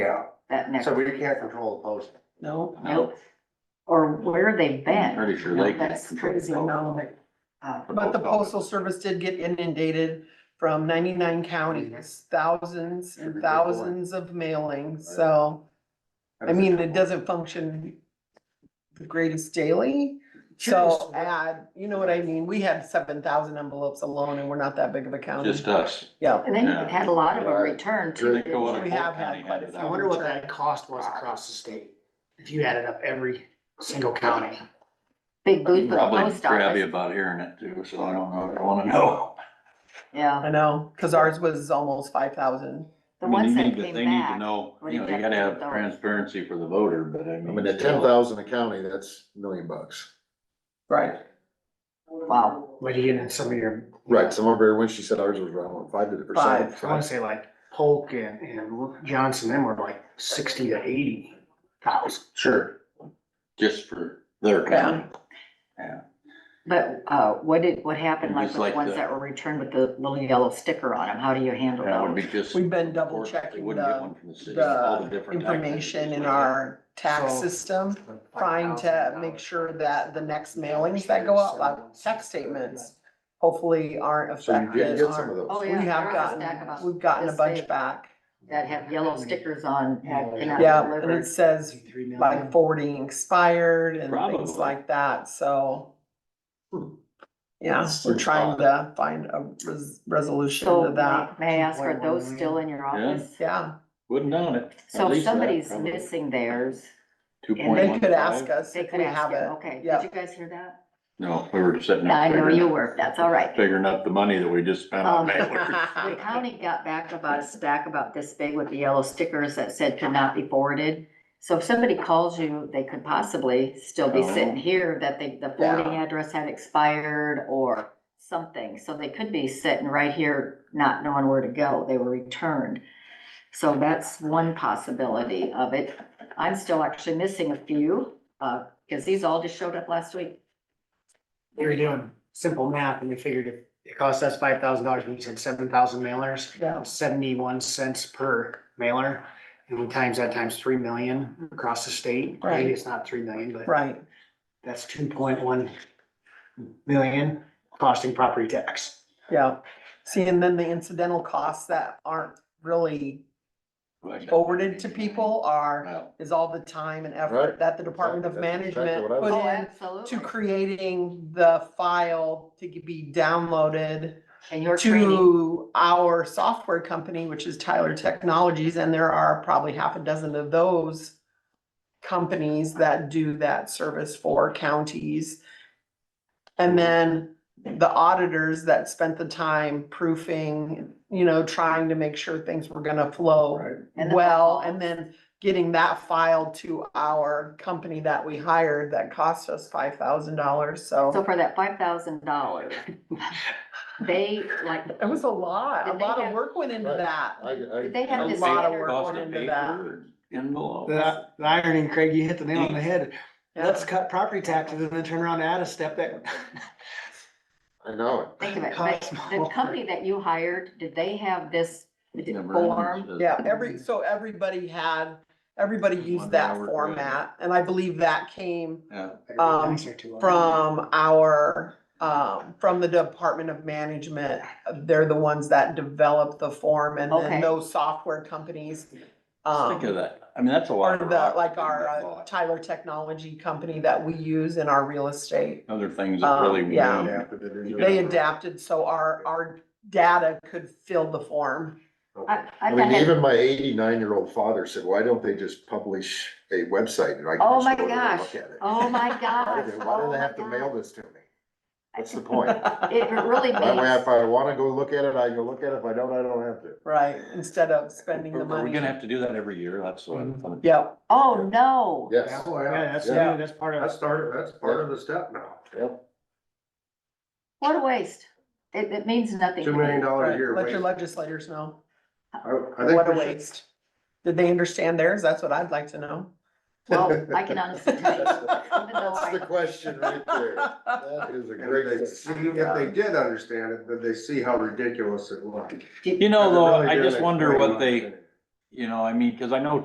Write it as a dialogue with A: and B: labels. A: Yeah,
B: that next,
A: so we can't control the posting.
C: No.
B: nope. Or where they've been.
D: Pretty sure they can.
B: That's
C: Crazy, no.
B: Uh,
C: But the postal service did get inundated from ninety-nine
D: Mm-hmm.
C: counties, thousands and thousands of mailings, so. I mean, it doesn't function the greatest daily, so add, you know what I mean? We had seven thousand envelopes alone and we're not that big of a county.
D: Just us.
C: Yeah,
B: And then you've had a lot of them return
D: Here they
B: too.
D: go on a
C: We
D: whole
C: have had
D: county
C: quite a
D: handed
C: few.
E: I
D: out.
E: wonder what that cost was across the state, if you added up every single county.
B: Big booth with the
D: Probably
B: post
D: crabby
B: office.
D: about hearing it too, so I don't know, if I wanna know.
B: Yeah,
C: I know, cause ours was almost five thousand.
B: the
D: I mean,
B: ones
D: you
B: that
D: need to-
B: came
D: They need to
B: back.
D: know,
B: were
D: you know, you gotta have
B: rejected.
D: transparency for the voter, but I mean.
F: I mean, at ten thousand a county, that's a million bucks.
C: Right.
B: Wow,
E: What do you get in some of your,
F: Right, some of her, when she said ours was around five to the percent.
E: I wanna say like Polk and, and Johnson, them were like sixty to eighty thousand.
F: Sure.
D: Just for their county.
B: but, uh, what did, what happened
D: And
B: like with
D: just
B: the
D: like
B: ones
D: the-
B: that were returned with the little yellow sticker on them? How do you handle
D: That would be
B: those?
D: just.
C: We've been
D: Of
C: double
D: course, they
C: checking
D: wouldn't get
C: the-
D: one from city, all
C: the
D: different tax
C: information
D: agencies
C: in
D: like that.
C: our tax
E: So-
C: system, trying to make sure that the next mailings that go out, like tax statements, hopefully aren't
F: So you did
C: affected.
F: get some of
C: aren't-
B: Oh,
F: those.
C: We
B: yeah, there
C: have
B: was a stack of
C: gotten,
B: 'em
C: we've gotten a
B: this
C: bunch
B: big
C: back,
B: That have yellow stickers on, that cannot be
C: yeah, and it
B: delivered.
C: says like forwarding expired and
D: Probably.
C: things like that, so.
F: Hmm.
C: Yeah,
F: That's
C: we're
F: so
C: trying to find a res- resolution
B: So
C: to
B: may
C: that,
B: may I ask, are those still in your
D: Yeah.
B: office?
C: yeah,
D: Wouldn't know it.
B: So if somebody's missing theirs,
D: Two
B: and
D: point
C: they
D: one
C: could ask
D: five?
C: us
B: they
C: if
B: could
C: we
B: ask
C: have
B: you,
C: it.
B: okay,
C: yeah.
B: did you guys hear that?
D: No, we were sitting there.
B: I know
D: figuring-
B: you were, that's all right.
D: Figuring out the money that we just spent
B: Um,
D: on mailers.
B: The county got back about a stack about this big with the yellow stickers that said could not be forwarded. So if somebody calls you, they could possibly still be sitting here that they, the forwarding address had expired or something. So they could be sitting right here, not knowing where to go. They were returned. So that's one possibility of it. I'm still actually missing a few, uh, cause these all just showed up last week.
E: We were doing simple math and we figured if it cost us five thousand dollars, we said seven thousand mailers,
C: Yeah,
E: seventy-one cents per mailer. And we times that times three million across the state.
C: Right.
E: Maybe it's not three million, but
C: right.
E: that's two point one million costing property tax.
C: Yeah, see, and then the incidental costs that aren't really
D: Like-
C: forwarded to people are,
D: Well,
C: is all the time and effort
F: Right.
C: that the Department of
F: That's exactly
C: Management
F: what I was-
C: put
B: Oh,
C: in
B: absolutely.
C: to creating the file to be downloaded
B: And your training.
C: to our software company, which is Tyler Technologies, and there are probably half a dozen of those companies that do that service for counties. And then the auditors that spent the time proofing, you know, trying to make sure things were gonna flow
F: Right.
B: And the
C: well,
B: phone
C: and then getting that file to our company that we hired that cost us five thousand dollars,
B: So
C: so
B: for that five thousand dollars, they like,
C: it was a lot, a
B: Did they
C: lot of
B: have-
C: work went into
F: Right.
C: that.
F: I, I.
B: They had
C: A
B: this
C: lot of
B: standard-
C: work
D: Cost
C: going
D: of
C: into that.
D: paper, envelopes.
E: The, the irony, Craig, you hit the nail on the head.
C: Yeah.
E: Let's cut property taxes and then turn around and add a step that.
F: I know
B: think of it, but the company that you hired, did they have this
D: Never
B: form?
D: understood.
C: Yeah, every, so everybody had, everybody used
D: One
C: that
D: hour, right.
C: format, and I believe that came
D: Yeah.
C: Um, from our, um, from the Department of Management. They're the ones that developed the form, and
B: Okay.
C: then those software companies,
D: Just Think of
C: um,
D: that. I mean, that's a
C: are
D: lot. of
C: the,
D: rock
C: like
D: that
C: our
D: got
C: uh,
D: bought.
C: Tyler Technology company that we use in our real estate.
D: Other things that
C: um,
D: really.
C: yeah.
D: moved.
F: it.
C: They adapted, so our, our data could fill the form.
B: I,
F: I
B: I've
F: mean,
B: had,
F: even my eighty-nine-year-old father said, why don't they just publish a website and I can
B: Oh
F: just
B: my
F: go there
B: gosh.
F: and look at it?
B: oh my
F: Why
B: gosh.
F: do they- why
B: oh
F: do
B: my
F: they have to mail
B: God.
F: this to me? What's the point?
B: It really
F: That way, if
B: means,
F: I wanna go look at it, I can look at it. If I don't, I don't have to.
C: Right, instead of spending the
D: Are are we
C: money.
D: gonna have to do that every year? That's what.
C: Mm-hmm.
D: I'm-
C: Yep,
B: oh, no.
F: Yes.
E: Yeah, that's,
C: Yeah.
E: that's part of.
A: That's started, that's part of the step now.
F: Yep.
B: What a waste. It, it means nothing.
A: Two
B: to
A: million
B: me.
A: dollar a year.
C: let your
A: waste.
C: legislators know.
A: I- I think
C: What a
A: we should-
C: waste. Did they understand theirs? That's what I'd like to know.
B: Well, I can honestly tell you. even though
F: That's the
B: I-
F: question right there. That is a
A: If
F: great.
A: they see, if they did understand it, then they see how ridiculous it was.
D: You know, though,
A: Really
D: I
A: did
D: just
A: it
D: wonder
A: for
D: what
A: you.
D: they, you know, I mean, cause I know